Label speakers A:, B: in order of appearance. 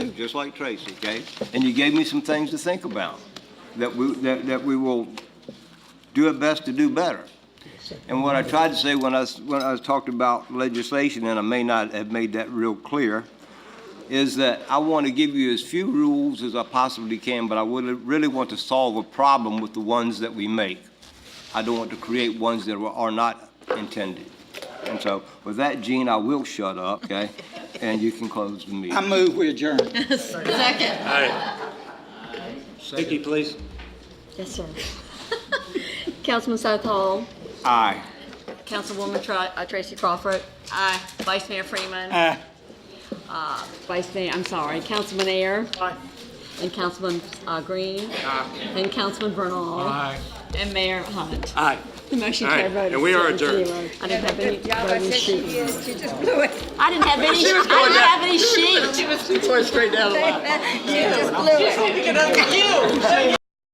A: just like Tracy, okay? And you gave me some things to think about, that we, that, that we will do our best to do better. And what I tried to say when I, s- when I was talked about legislation, and I may not have made that real clear, is that I want to give you as few rules as I possibly can, but I would, really want to solve a problem with the ones that we make. I don't want to create ones that were- are not intended. And so with that, Gene, I will shut up, okay? And you can close the meeting.
B: I move we adjourn.
C: Second.
D: Vicky, please.
C: Yes, sir. Councilman South Hall.
A: Aye.
C: Councilwoman Tra- uh, Tracy Crawford. Aye. Vice Mayor Freeman. Uh,
B: Aye.
C: Vice Mayor, I'm sorry, Councilman Ayer. Aye. And Councilman uh, Green. Aye. And Councilman Bernal. Aye. And Mayor Hunt.
D: Aye.
C: The motion
D: Aye,
C: carried. by
D: and we are
C: seven
D: adjourned.
C: zero. I didn't have any
E: job I
C: voting
E: said she
C: sheet.
E: did, she just blew it.
C: I didn't have any, I didn't have any sheet.
E: She just blew it.